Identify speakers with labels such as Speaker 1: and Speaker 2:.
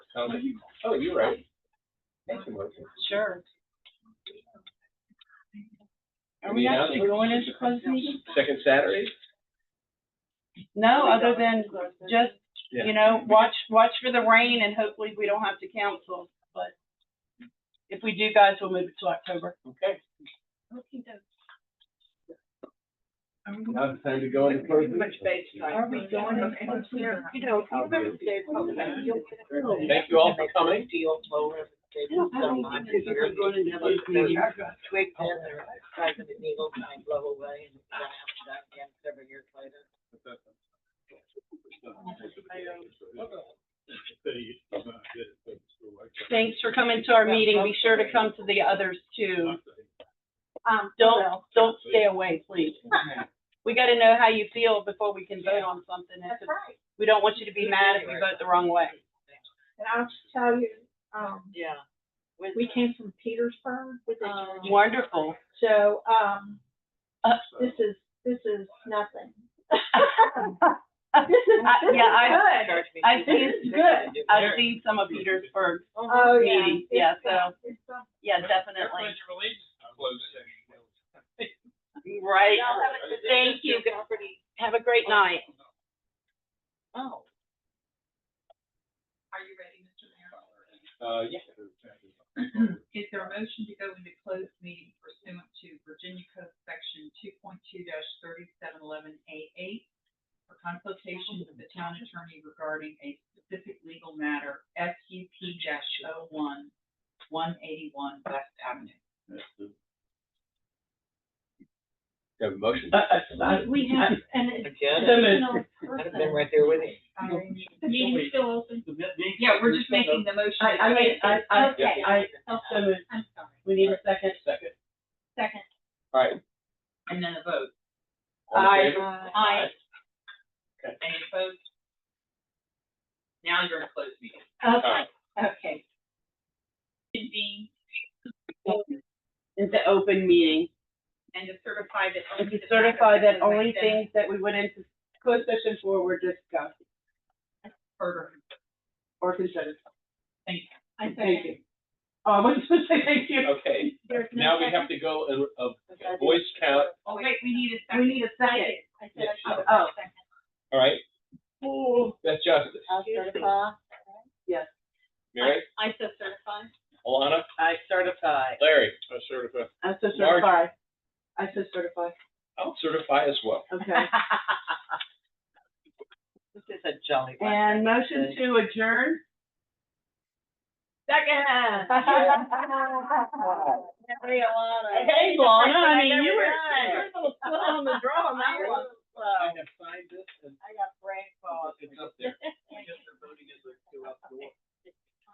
Speaker 1: Oh, oh, you're right. Thank you, Melissa.
Speaker 2: Sure. Are we actually going into closed meeting?
Speaker 1: Second Saturday?
Speaker 2: No, other than just, you know, watch, watch for the rain and hopefully we don't have to cancel, but if we do, guys, we'll move it to October.
Speaker 1: Okay.
Speaker 2: Are we-
Speaker 1: Now it's time to go into closed meeting.
Speaker 2: Are we going into clear?
Speaker 3: You know, if you remember Dave Hogan, you'll get a little
Speaker 1: Thank you all for coming.
Speaker 3: deal flow of Dave Hogan. Twig in there, size of the needle, kind of blow away, and I have that again several years later.
Speaker 2: Thanks for coming to our meeting. Be sure to come to the others too. Don't, don't stay away, please. We gotta know how you feel before we can vote on something. If it's-
Speaker 4: right.
Speaker 2: We don't want you to be mad if we vote the wrong way.
Speaker 4: And I'll just tell you, um,
Speaker 3: Yeah. With-
Speaker 4: we came from Petersburg with the church.
Speaker 3: Um,
Speaker 2: Wonderful.
Speaker 4: So, um,
Speaker 2: Uh,
Speaker 4: this is, this is nothing. This is,
Speaker 2: I-
Speaker 4: this
Speaker 2: yeah, I-
Speaker 4: is good.
Speaker 3: Charge me
Speaker 2: I've
Speaker 3: two
Speaker 2: seen-
Speaker 3: hundred
Speaker 4: it's
Speaker 3: and fifty to do
Speaker 2: I've
Speaker 3: better.
Speaker 2: seen some of Petersburg's
Speaker 4: Oh, yeah.
Speaker 2: meeting, yeah,
Speaker 4: It's some- it's some-
Speaker 2: Yeah, definitely. Right. Thank you. Have a great night.
Speaker 3: Oh.
Speaker 5: Are you ready, Mr. Mayor?
Speaker 1: Uh, yeah.
Speaker 5: Is there a motion to go into closed meeting pursuant to Virginia Code Section two point two thirty-seven eleven A eight for consultation with the town attorney regarding a specific legal matter, S U P dash oh one, one eighty-one West Avenue?
Speaker 1: Have a motion?
Speaker 2: Uh,
Speaker 4: We have, and it's.
Speaker 3: Again,
Speaker 4: additional
Speaker 3: I'd have
Speaker 4: person.
Speaker 3: been right there with you.
Speaker 4: Um, The meeting's still open.
Speaker 5: Yeah, we're just making the motion.
Speaker 6: I, I mean, I, I,
Speaker 4: Okay,
Speaker 6: I, so moved.
Speaker 4: I'm sorry.
Speaker 6: we need a second.
Speaker 1: Second.
Speaker 4: Second.
Speaker 1: All right.
Speaker 5: And then a vote.
Speaker 1: All in
Speaker 2: Aye.
Speaker 1: favor?
Speaker 2: Aye.
Speaker 5: Any opposed? Now you're in closed meeting.
Speaker 1: Aye.
Speaker 4: Okay, okay.
Speaker 5: Convene
Speaker 6: Into open meeting,
Speaker 5: and to certify that.
Speaker 6: and
Speaker 5: only
Speaker 6: to
Speaker 5: the matters
Speaker 6: certify that
Speaker 5: have been
Speaker 6: only
Speaker 5: presented
Speaker 6: things that we went into closed session for were discussed
Speaker 5: Further,
Speaker 6: or considered.
Speaker 5: thank you.
Speaker 4: I
Speaker 6: Thank
Speaker 4: second.
Speaker 6: you. Um, I just want to say thank you.
Speaker 1: Okay,
Speaker 4: There's
Speaker 1: now
Speaker 4: no
Speaker 1: we
Speaker 4: second.
Speaker 1: have to go and, a voice count,
Speaker 5: Oh, wait, we need a
Speaker 6: We
Speaker 5: second.
Speaker 6: need a second.
Speaker 4: I said I should-
Speaker 6: Oh.
Speaker 1: all right? That's Justice.
Speaker 3: I'll certify.
Speaker 1: Mary,
Speaker 4: I said certified.
Speaker 1: Alana,
Speaker 6: I certify.
Speaker 1: Larry. I certify.
Speaker 6: I so
Speaker 1: Marge.
Speaker 6: certify. I so certify. Oh.
Speaker 1: I'll certify as well.
Speaker 6: Okay.
Speaker 3: This is a jolly. one.
Speaker 6: And motion to adjourn?
Speaker 3: Hey, Alana.
Speaker 6: Hey, Lana, I mean, you
Speaker 3: Hey.
Speaker 6: were.
Speaker 3: on the draw on that one.
Speaker 4: uh,
Speaker 1: I have signed this and
Speaker 3: I got brain fog.
Speaker 1: it's up there.